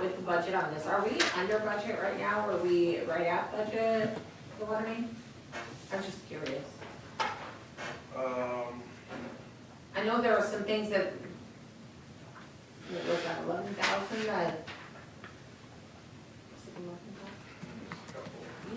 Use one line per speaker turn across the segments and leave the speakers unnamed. with the budget on this, are we under budget right now, are we right at budget, the water main? I'm just curious.
Um,
I know there are some things that, what was that, eleven thousand, that? was it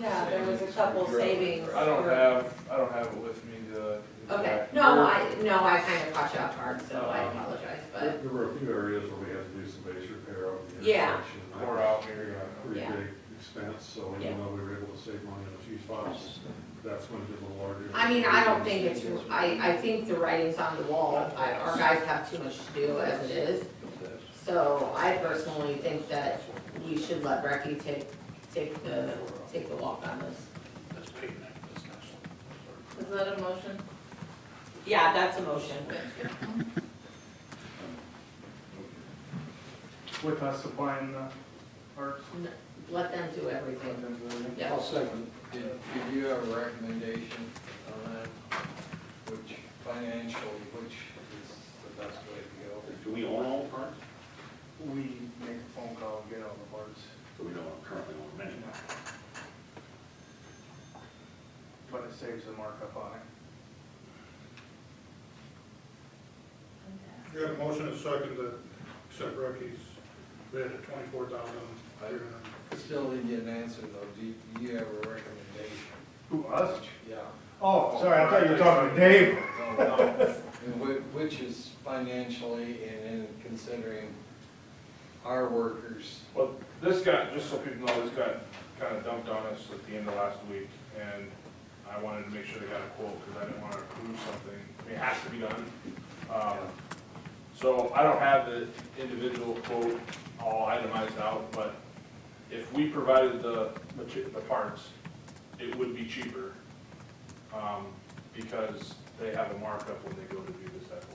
11,000?
there's a couple.
Yeah, there was a couple savings.
I don't
for-
have, I don't have it with me, the. the
Okay,
exact
no,
number.
I, no, I kind of caught you off guard, so I
Um,
apologize,
There
but,
there were a few areas where we had to do some base repair out of the
Yeah.
intersection. That
We're
was
out here,
a Pretty
Yeah.
big expense, so
Yeah.
even though we were able to save money in a few spots, that's when it did a little larger.
I mean, I don't think it's, I, I think the writing's on the wall, I, our guys have too much to do as it is. So I personally think that we should let Brecky take, take the, take the walk on this.
That's paying that business.
Is that a motion? Yeah, that's a motion.
With us supplying the parts.
N- Let them do everything. Yeah.
I'll second. Did, did you have a recommendation on that? Which financially, which is the best way to go?
Do we own all the parks?
We make a phone call and get all the parts,
So we don't currently own many.
but it saves the markup on it.
You have a motion and a second to accept Rocky's bid at twenty-four thousand three hundred.
Still didn't get an answer though. Do you, do you have a recommendation?
Who, us?
Yeah.
Oh, sorry, I thought you were talking to Dave.
No, no. And whi- Which is financially and in considering our workers.
Well, this got, just so people know, this got kind of dumped on us at the end of last week, and I wanted to make sure they got a quote, because I didn't want to approve something, I mean, it has to be done. Um, So I don't have the individual quote all itemized out, but if we provided the, mater- the parts, it would be cheaper, um, because they have a markup when they go to do this at work.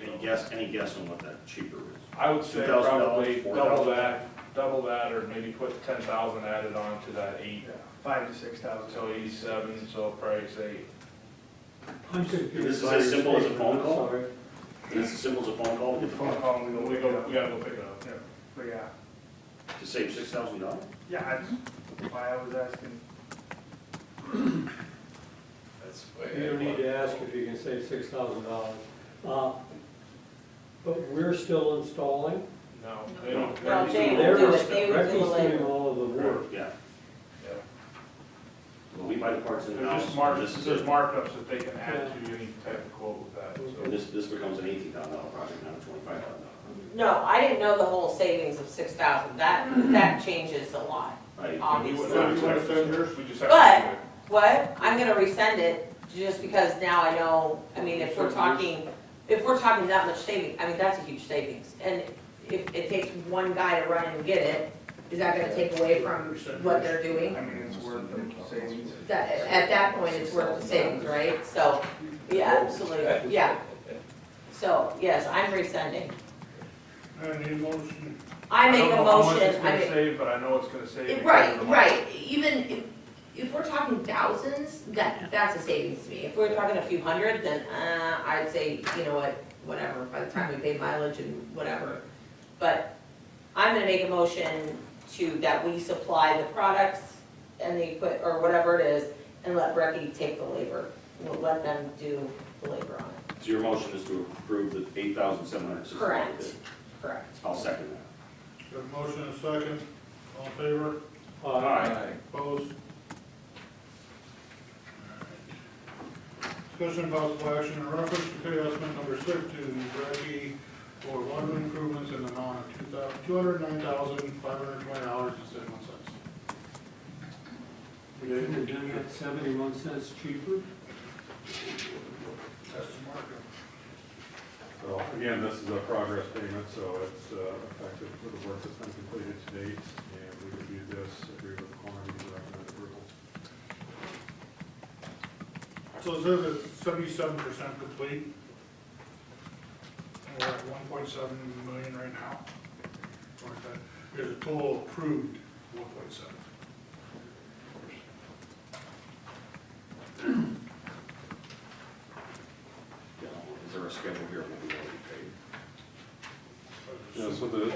Any guess, any guess on what that cheaper is?
I would say
$2,000,
probably
$4,000.
double that, double that, or maybe put ten thousand added on to that eight.
Five to six thousand.
So eighty-seven, so probably say,
This is as simple as a phone call? Is this as simple as a phone call
phone call, we go, we go, we gotta go pick it up.
But yeah,
to save six thousand dollars?
yeah, that's why I was asking.
That's the way I
You don't need
look.
to ask if you can save six thousand dollars. Uh, But we're still installing.
No, they don't, they
No,
don't-
They will
They're-
do it. They will do it
Rex's
later.
doing all of the work.
Yeah.
Yeah.
Well, we buy the parts in
they're
house.
just mark,
This is
there's
it.
markups that they can add to any type of quote with that, so.
And this, this becomes an eighteen thousand dollar project, not a twenty-five thousand dollar.
No, I didn't know the whole savings of six thousand, that, that changes a lot.
I,
We
Obviously.
would not expect this, we just have
But-
to
What? I'm gonna resend it, just because now I know, I mean, if we're talking, if we're talking that much saving, I mean, that's a huge savings. And if it takes one guy to run and get it, is that gonna take away from what they're doing?
I mean, it's worth the savings.
That, at that point, it's worth the savings, right? So, yeah, absolutely, yeah. So, yes, I'm resending.
I need a motion.
I make
don't
a
know how much
motion,
it's
I
gonna
make.
save, but I know it's gonna save.
It-
because of
Right,
the markup.
right, even if, if we're talking thousands, that, that's a savings to me. If we're talking a few hundred, then, uh, I'd say, you know what, whatever, by the time we pay mileage and whatever. But I'm gonna make a motion to, that we supply the products and the equip, or whatever it is, and let Brecky take the labor. We'll let them do the labor on it.
So your motion is to approve the eight thousand seven hundred sixty dollar
Correct.
bid?
Correct.
I'll second that.
You have a motion and a second, all in favor,
Uh,
Aye.
opposed? Discussion and possible action in reference to pay estimate number six to Rocky for water improvements in the amount of two thousand, two hundred nine thousand, five hundred twenty dollars and seventy-one cents.
We're doing it seventy-one cents cheaper.
That's the markup.
So again, this is a progress payment, so it's uh, effective for the work that's been completed to date, and we reviewed this, agreed with the quantity, recommend approval.
So it says it's seventy-seven percent complete. And We're at one point seven million right now. Or is that- There's a total approved one point seven.